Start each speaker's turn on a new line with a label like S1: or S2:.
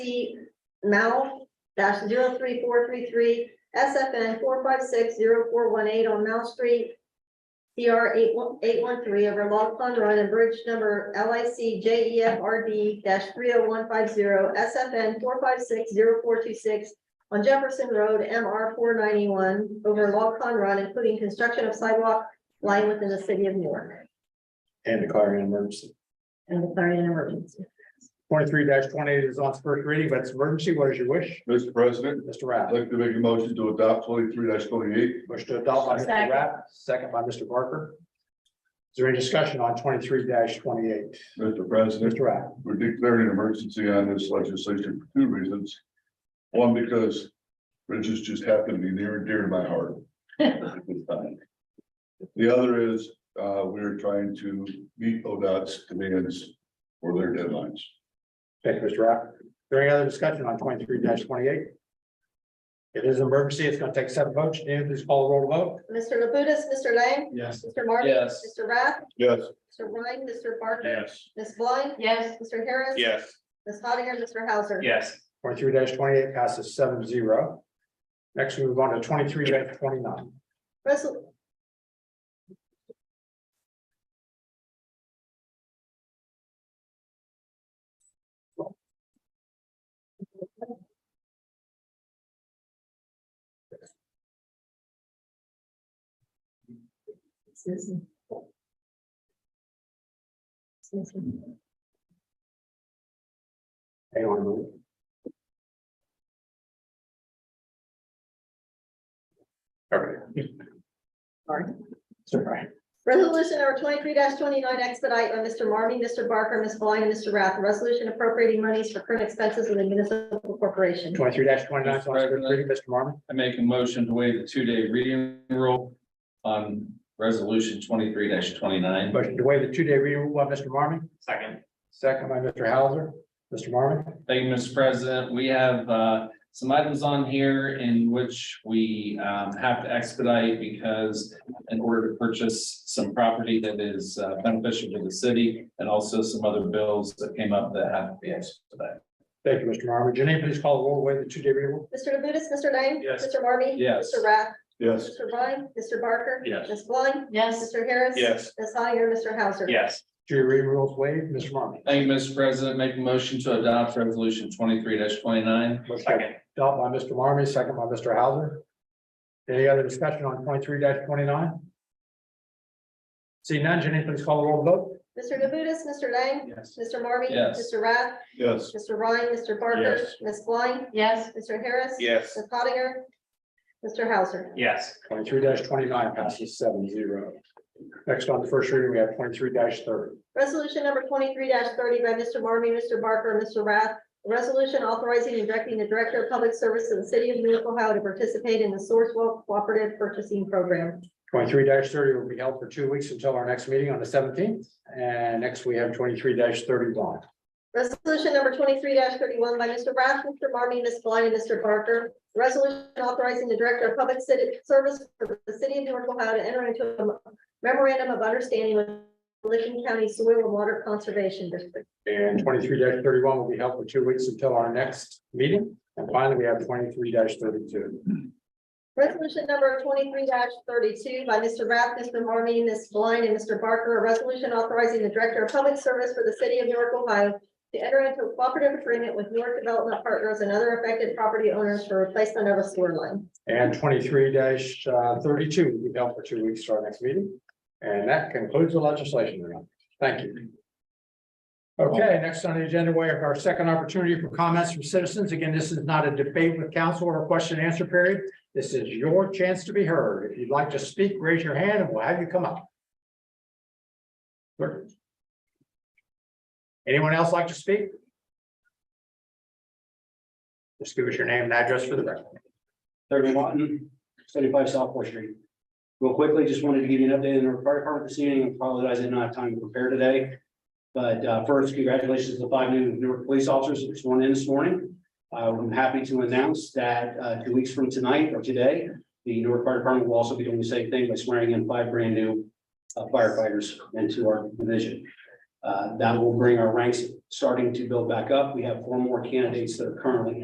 S1: C Mel dash zero three four three three, SFN four five six zero four one eight on Mel Street. CR eight one, eight one three over Log Pond Run and Bridge number LIC JEFRD dash three oh one five zero, SFN four five six zero four two six. On Jefferson Road, MR four ninety-one over Log Pond Run, including construction of sidewalk lying within the city of Newark
S2: and declaring an emergency.
S1: and declaring an emergency.
S2: Twenty-three twenty-eight is on its first reading, but it's emergency. What is your wish?
S3: Mr. President,
S2: Mr.
S3: I'd
S2: Rath,
S3: like to make a motion to adopt twenty-three twenty-eight.
S2: wish to adopt by Mr.
S4: Second.
S2: Rath, second by Mr. Barker. Is there any discussion on twenty-three twenty-eight?
S3: Mr. President,
S2: Mr. Rath,
S3: we're declaring an emergency on this legislation for two reasons. One, because bridges just happen to be near and dear to my heart. The other is, uh, we're trying to meet ODOT's demands for their deadlines.
S2: thank you, Mr. Rath. Is there any other discussion on twenty-three twenty-eight? It is an emergency. It's going to take seven votes. Nancy, please call the roll to vote.
S1: Mr. Labutus, Mr. Lang,
S2: Yes.
S1: Mr. Marty.
S5: Yes.
S1: Mr. Rath,
S3: Yes.
S1: Mr. Ryan, Mr. Barker.
S5: Yes.
S1: Ms. Blind.
S4: Yes.
S1: Mr. Harris.
S5: Yes.
S1: Ms. Hattiger, Mr. Hauser.
S5: Yes.
S2: Twenty-three twenty-eight passes seven zero. Next, we move on to twenty-three twenty-nine.
S1: Resol- Susan. Susan.
S2: Hang on a minute. All right.
S1: Sorry.
S2: It's all right.
S1: Resolution number twenty-three twenty-nine expedite by Mr. Marmy, Mr. Barker, Ms. Blind, and Mr. Rath. Resolution appropriating monies for current expenses of the municipal corporation.
S2: Twenty-three twenty-nine,
S5: Mr.
S2: so it's good reading, Mr. Marmy.
S5: I make a motion to waive the two-day reading rule on resolution twenty-three twenty-nine.
S2: Motion to waive the two-day reading rule by Mr. Marmy,
S5: Second.
S2: second by Mr. Hauser. Mr. Marmy,
S5: Thank you, Mr. President. We have uh, some items on here in which we um, have to expedite because in order to purchase some property that is uh, beneficial to the city and also some other bills that came up that have to be expedited.
S2: thank you, Mr. Marmy. Janine, please call the roll, to waive the two-day reading rule.
S1: Mr. Labutus, Mr. Lang.
S5: Yes.
S1: Mr. Marmy.
S5: Yes.
S1: Mr. Rath.
S3: Yes.
S1: Mr. Blind, Mr. Barker.
S5: Yes.
S1: Ms. Blind,
S4: Yes.
S1: Mr. Harris.
S5: Yes.
S1: Ms. Hattiger, Mr. Hauser.
S5: Yes.
S2: Two-day reading rules waived, Mr. Marmy.
S5: Thank you, Mr. President. Make a motion to adopt resolution twenty-three twenty-nine.
S2: Motion Dealt by Mr. Marmy, second by Mr. Hauser. Any other discussion on twenty-three twenty-nine? See none, Janine, please call the roll, to vote.
S1: Mr. Labutus, Mr. Lang.
S5: Yes.
S1: Mr. Marmy.
S5: Yes.
S1: Mr. Rath.
S3: Yes.
S1: Mr. Ryan, Mr. Barker.
S3: Yes.
S1: Ms. Blind,
S4: Yes.
S1: Mr. Harris.
S5: Yes.
S1: Ms. Hattiger. Mr. Hauser.
S5: Yes.
S2: Twenty-three twenty-nine passes seven zero. Next on the first reading, we have twenty-three thirty.
S1: Resolution number twenty-three thirty by Mr. Marmy, Mr. Barker, and Mr. Rath. A Resolution authorizing and directing the Director of Public Service of the City of Newark, Ohio to participate in the Sourcewell Cooperative Purchasing Program.
S2: Twenty-three thirty will be held for two weeks until our next meeting on the seventeenth. And next, we have twenty-three thirty-one.
S1: Resolution number twenty-three thirty-one by Mr. Rath, Mr. Marmy, Ms. Blind, and Mr. Barker. Resolution authorizing the Director of Public City Service for the City of Newark, Ohio to enter into a memorandum of understanding with Licking County Soil and Water Conservation District.
S2: And twenty-three thirty-one will be held for two weeks until our next meeting. And finally, we have twenty-three thirty-two.
S1: Resolution number twenty-three thirty-two by Mr. Rath, Mr. Marmy, Ms. Blind, and Mr. Barker, a resolution authorizing the Director of Public Service for the City of Newark, Ohio to enter into a cooperative agreement with Newark Development Partners and other affected property owners for replacement of a sewer line.
S2: And twenty-three uh, thirty-two will be held for two weeks to our next meeting. And that concludes the legislation round. Thank you. Okay, next on the agenda, we have our second opportunity for comments from citizens. Again, this is not a debate with council or a question and answer period. This is your chance to be heard. If you'd like to speak, raise your hand and we'll have you come up. Clerk. Anyone else like to speak? Just give us your name and address for the record.
S6: Thurman Martin, seventy-five South Fourth Street. Real quickly, just wanted to give you an update on our fire department this evening. I Apologize, I didn't have time to prepare today. But uh, first, congratulations to the five new Newark police officers that sworn in this morning. Uh, I'm happy to announce that uh, two weeks from tonight or today, the Newark Fire Department will also be doing the same thing by swearing in five brand new uh, firefighters into our division. Uh, That will bring our ranks starting to build back up. We have four more candidates that are currently